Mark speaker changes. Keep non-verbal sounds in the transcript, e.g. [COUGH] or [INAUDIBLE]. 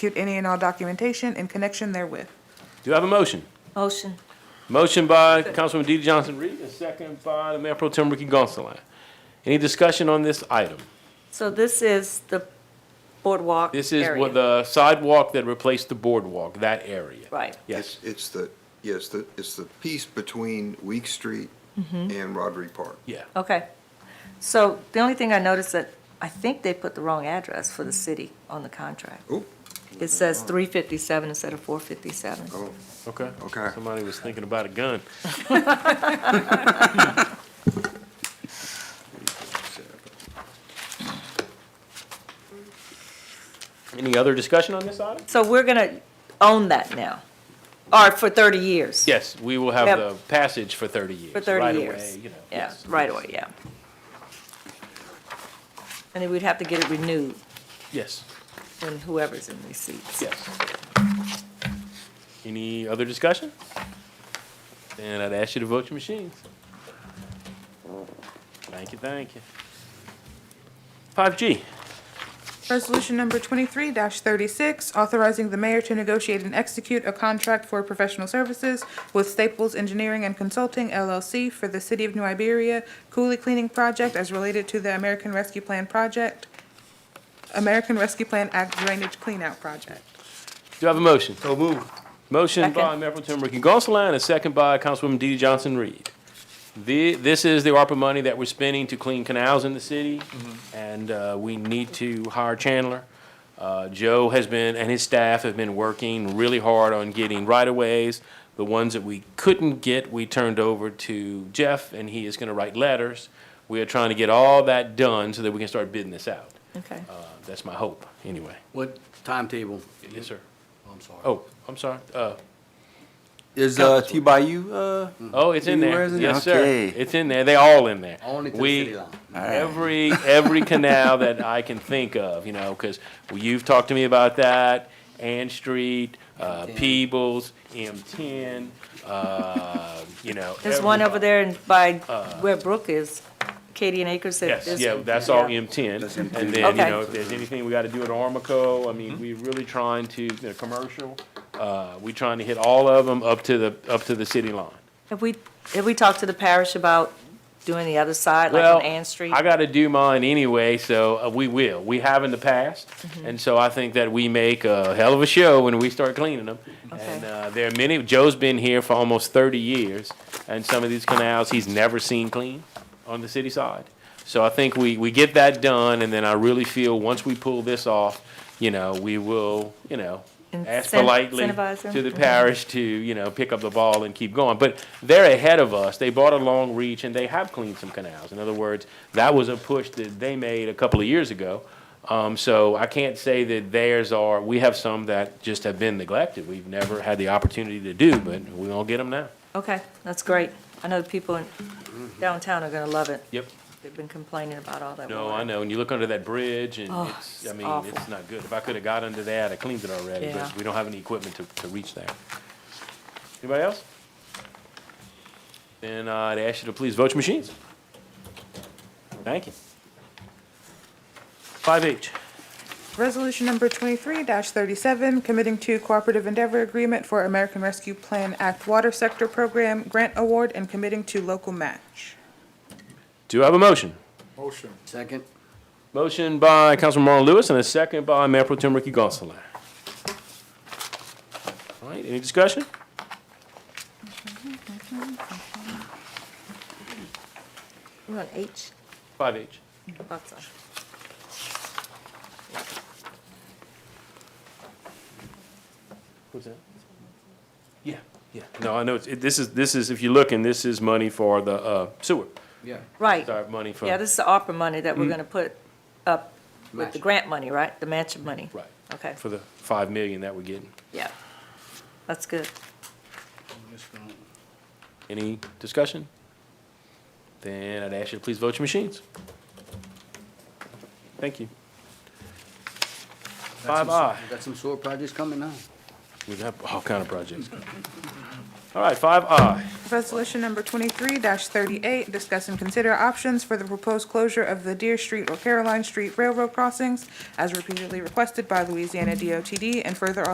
Speaker 1: execute any and all documentation in connection therewith.
Speaker 2: Do I have a motion?
Speaker 3: Motion.
Speaker 2: Motion by Councilwoman DeeDee Johnson-Reed, and second by the Mayor Pro Tem Ricky Gonsalas. Any discussion on this item?
Speaker 3: So this is the boardwalk
Speaker 2: This is
Speaker 3: area.
Speaker 2: what the sidewalk that replaced the boardwalk, that area.
Speaker 3: Right.
Speaker 2: Yes.
Speaker 4: It's- It's the, yes, the, it's the piece between Week Street and Roderick Park.
Speaker 2: Yeah.
Speaker 3: Okay. So the only thing I noticed that I think they put the wrong address for the city on the contract.
Speaker 4: Oh,
Speaker 3: It says 357 instead of 457.
Speaker 4: oh,
Speaker 2: Okay.
Speaker 4: Okay.
Speaker 2: Somebody was thinking about a gun. [LAUGHS] Any other discussion on this item?
Speaker 3: So we're going to own that now, or for 30 years?
Speaker 2: Yes, we will have
Speaker 3: Yep.
Speaker 2: the passage for thirty years.
Speaker 3: For 30
Speaker 2: right
Speaker 3: years?
Speaker 2: away, you know,
Speaker 3: Yeah,
Speaker 2: yes,
Speaker 3: right
Speaker 2: yes,
Speaker 3: away, yeah. And then we'd have to get it renewed
Speaker 2: Yes,
Speaker 3: when whoever's in these seats.
Speaker 2: yes. Any other discussion? And I'd ask you to vote your machines. Thank you, thank you. Five G.
Speaker 1: Resolution number twenty-three thirty-six, authorizing the mayor to negotiate and execute a contract for professional services with Staples Engineering and Consulting LLC for the City of New Iberia Cooley Cleaning Project as related to the American Rescue Plan Project, American Rescue Plan Act Drainage Cleanout Project.
Speaker 2: Do I have a motion? So move. Motion by
Speaker 3: Second.
Speaker 2: Mayor Pro Tem Ricky Gonsalas, and a second by Councilwoman DeeDee Johnson-Reed. The, this is the ARPA money that we're spending to clean canals in the city, and, uh, we need to hire Chandler. Uh, Joe has been, and his staff have been working really hard on getting right-of-ways. The ones that we couldn't get, we turned over to Jeff, and he is gonna write letters. We are trying to get all that done so that we can start bidding this out.
Speaker 3: Okay.
Speaker 2: Uh, that's my hope, anyway.
Speaker 5: What timetable?
Speaker 2: Yes, sir.
Speaker 5: I'm sorry.
Speaker 2: Oh, I'm sorry, uh,
Speaker 6: Is uh, T Bayou? Uh,
Speaker 2: Oh, it's in there.
Speaker 6: Anywhere is in there?
Speaker 2: Yes, sir.
Speaker 6: Okay.
Speaker 2: It's in there. They all in there.
Speaker 5: Only to the
Speaker 2: We-
Speaker 5: city line.
Speaker 2: Every, every canal that I can think of, you know, because you've talked to me about that, Ann Street, uh, Peebles, M ten, uh, you know.
Speaker 3: There's one over
Speaker 2: everybody.
Speaker 3: there and by where Brook is, Katie and Acres. that
Speaker 2: Uh, Yes,
Speaker 3: is-
Speaker 2: yeah, that's all
Speaker 3: yeah.
Speaker 2: M ten.
Speaker 6: That's M10.
Speaker 2: And then, you
Speaker 3: Okay. Mm-hmm.
Speaker 2: know, if there's anything we gotta do at Armico, I mean, we're really trying to, you know, commercial, uh, we trying to hit all of them up to the, up to the city line.
Speaker 3: Have we, have we talked to the parish about doing the other side, like on Ann Street?
Speaker 2: I got to do mine anyway, so uh, we will. We have in the past,
Speaker 3: Mm-hmm.
Speaker 2: and so I think that we make a hell of a show when we start cleaning them. And
Speaker 3: Okay.
Speaker 2: uh, there are many. Joe's been here for almost thirty years, and some of these canals he's never seen clean on the city side. So I think we we get that done, and then I really feel once we pull this off, you know, we will, you know. Ask
Speaker 3: Incent-
Speaker 2: politely
Speaker 3: incentivize them?
Speaker 2: to the
Speaker 3: Mhm.
Speaker 2: parish to, you know, pick up the ball and keep going. But they're ahead of us. They bought a long reach and they have cleaned some canals. In other words, that was a push that they made a couple of years ago. Um, so I can't say that theirs are, we have some that just have been neglected. We've never had the opportunity to do, but we're gonna get them now.
Speaker 3: Okay, that's great. I know the people in downtown are gonna love it.
Speaker 2: Yep.
Speaker 3: They've been complaining about all that.
Speaker 2: No,
Speaker 3: water.
Speaker 2: I know. And you look under that bridge and
Speaker 3: Oh,
Speaker 2: it's, I
Speaker 3: it's
Speaker 2: mean,
Speaker 3: awful.
Speaker 2: it's not good. If I could have got under that, I cleaned it already,
Speaker 3: Yeah.
Speaker 2: but we don't have any equipment to, to reach there. Anybody else? Then uh, I'd ask you to please vote your machines. Thank you. Five H.
Speaker 1: Resolution number twenty-three thirty-seven, committing to cooperative endeavor agreement for American Rescue Plan Act Water Sector Program Grant Award and committing to local match.
Speaker 2: Do I have a motion?
Speaker 5: Second?
Speaker 2: Motion by Councilman Marlon Lewis and a second by Mayor Pro Tem Ricky Gonsalas. All right, any discussion?
Speaker 3: We're on H.
Speaker 2: Five H.
Speaker 3: Thought so.
Speaker 2: What's that? Yeah, yeah. No, I know, it's, it- this is, this is, if you're looking, this is money for the uh, sewer.
Speaker 5: Yeah.
Speaker 3: Right.
Speaker 2: Sorry, money for, Mm-hmm.
Speaker 3: Yeah, this is the opera money that we're gonna put up with the
Speaker 5: Match.
Speaker 3: grant money, right? The mansion money?
Speaker 2: right,
Speaker 3: Okay,
Speaker 2: for the five million that we're getting.
Speaker 3: yeah. That's good.
Speaker 2: Any discussion? Then I'd ask you to please vote your machines. Thank you. Five I.
Speaker 5: Got some sewer projects coming now.
Speaker 2: We have all kind of projects. All right, five I.
Speaker 1: Resolution number twenty-three thirty-eight, discuss and consider options for the proposed closure of the Deer Street or Caroline Street Railroad crossings as repeatedly requested by Louisiana DOTD and further